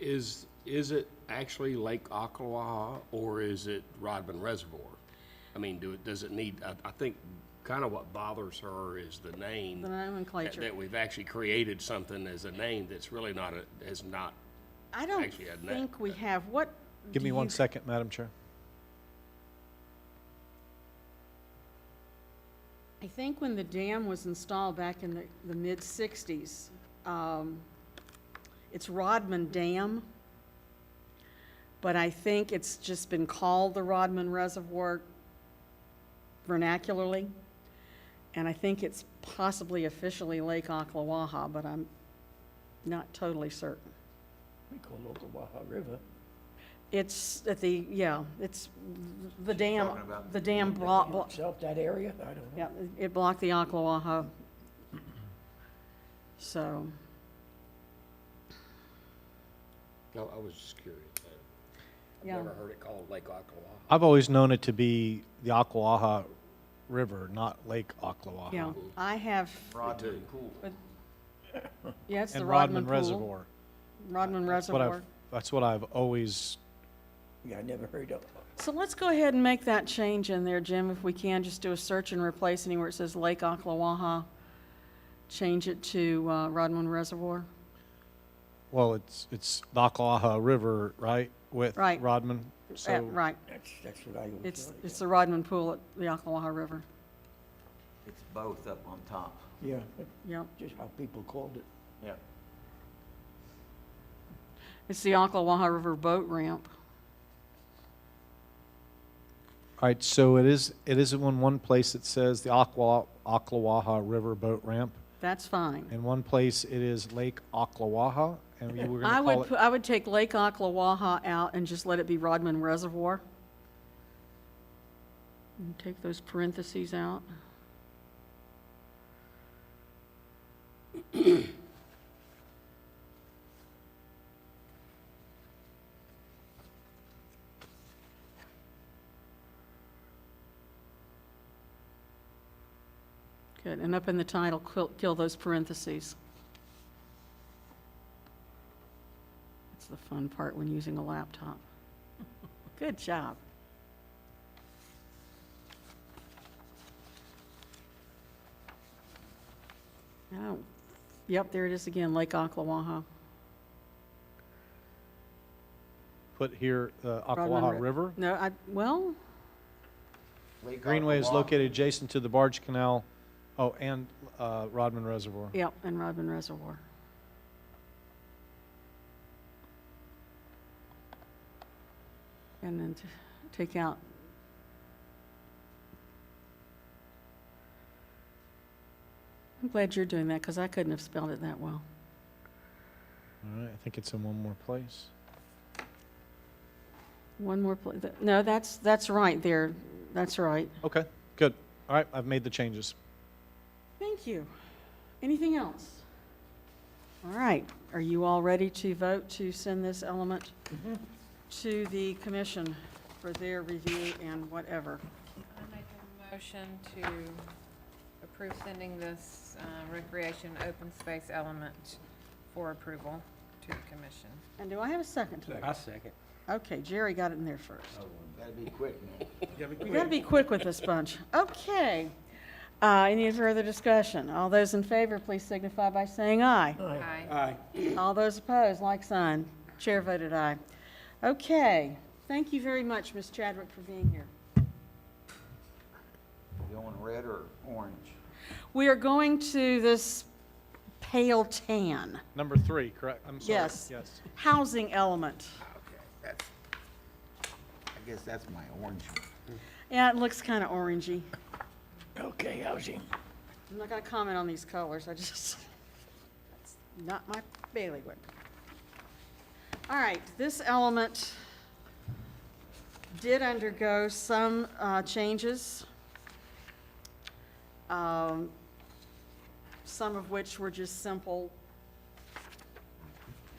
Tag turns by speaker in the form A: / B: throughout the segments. A: is, is it actually Lake Ocklawaha or is it Rodman Reservoir? I mean, do it, does it need, I, I think kind of what bothers her is the name.
B: The
A: that-
B: nomenclature.
A: That we've actually created something as a name that's really not, a- is not,
B: I don't
A: actually had that, uh,
B: think we have, what?
C: Give
B: do
C: me one
B: you-
C: second, Madam Chair.
B: I think when the dam was installed back in the, the mid-sixties, um, it's Rodman Dam, but I think it's just been called the Rodman Reservoir vernacularly. And I think it's possibly officially Lake Ocklawaha, but I'm not totally certain.
D: We call local Waha River.
B: It's at the, yeah, it's the dam,
E: talking about
B: the dam blo- blo-
D: Itself, that area, I don't know.
B: Yeah, it blocked the Ocklawaha. So,
A: no, I was just curious. I've
B: Yeah.
A: never heard it called Lake Ocklawaha.
C: I've always known it to be the Ocklawaha River, not Lake Ocklawaha.
B: yeah, I have,
E: Rodman Pool.
B: yeah, it's the
C: And
B: Rodman
C: Rodman
B: Pool.
C: Reservoir.
B: Rodman
C: That's what I've-
B: Reservoir.
C: That's what I've always,
D: Yeah, I never heard of it.
B: So let's go ahead and make that change in there, Jim, if we can, just do a search and replace anywhere it says Lake Ocklawaha. Change it to uh, Rodman Reservoir.
C: well, it's, it's the Ocklawaha River, right? With
B: Right.
C: Rodman?
B: Eh,
C: So
B: Right,
D: That's, that's what I always
B: it's,
D: thought.
B: it's the Rodman Pool at the Ocklawaha River.
E: It's both up on top.
D: Yeah, that's
B: Yep,
D: just how people called it.
E: Yeah.
B: it's the Ocklawaha River Boat Ramp.
C: All right, so it is, it is in one place it says the Ocklaw, Ocklawaha River Boat Ramp.
B: That's fine.
C: In one place it is Lake Ocklawaha, and we were
B: I
C: gonna call
B: would, pu-
C: it.
B: I would take Lake Ocklawaha out and just let it be Rodman Reservoir. And take those parentheses out. Good, and up in the title, kill- kill those parentheses. That's the fun part when using a laptop. Good job. Oh, yep, there it is again, Lake Ocklawaha.
C: Put here, uh,
B: Rodman
C: Ocklawaha
B: Ri-
C: River.
B: No, I, well,
E: Lake
C: Greenway is
E: Ocklawaha.
C: located adjacent to the Barge Canal, oh, and uh, Rodman Reservoir.
B: yep, and Rodman Reservoir. And then t- take out, I'm glad you're doing that, because I couldn't have spelled it that well.
C: All right, I think it's in one more place.
B: One more, pla- th- no, that's, that's right there, that's right.
C: Okay, good. All right, I've made the changes.
B: Thank you. Anything else? All right, are you all ready to vote to send this element to the commission for their review and whatever?
F: I make a motion to approve sending this uh, recreation open space element for approval to the commission.
B: And do I have a second to that?
G: I second. Oh,
B: Okay, Jerry got it in there first.
E: Gotta be quick now.
B: You gotta be quick with this bunch. Okay. Uh, any further discussion? All those in favor, please signify by saying aye.
F: Aye.
G: Aye.
B: All those opposed, like sign. Chair voted aye. Okay, thank you very much, Ms. Chadwick, for being here.
E: Going red or orange?
B: We are going to this pale tan
C: Number three, correct? I'm sorry.
B: Yes.
C: Yes.
B: housing element.
E: Okay, that's, I guess that's my orange one.
B: Yeah, it looks kind of orangey.
D: Okay, housing.
B: I'm not going to comment on these colors, I just, that's not my bailiwick. All right, this element did undergo some uh, changes, um, some of which were just simple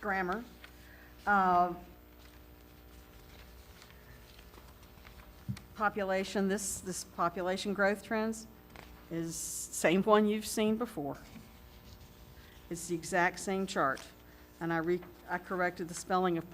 B: grammar. Uh, Population, this, this population growth trends is same one you've seen before. It's the exact same chart. And I re, I corrected the spelling of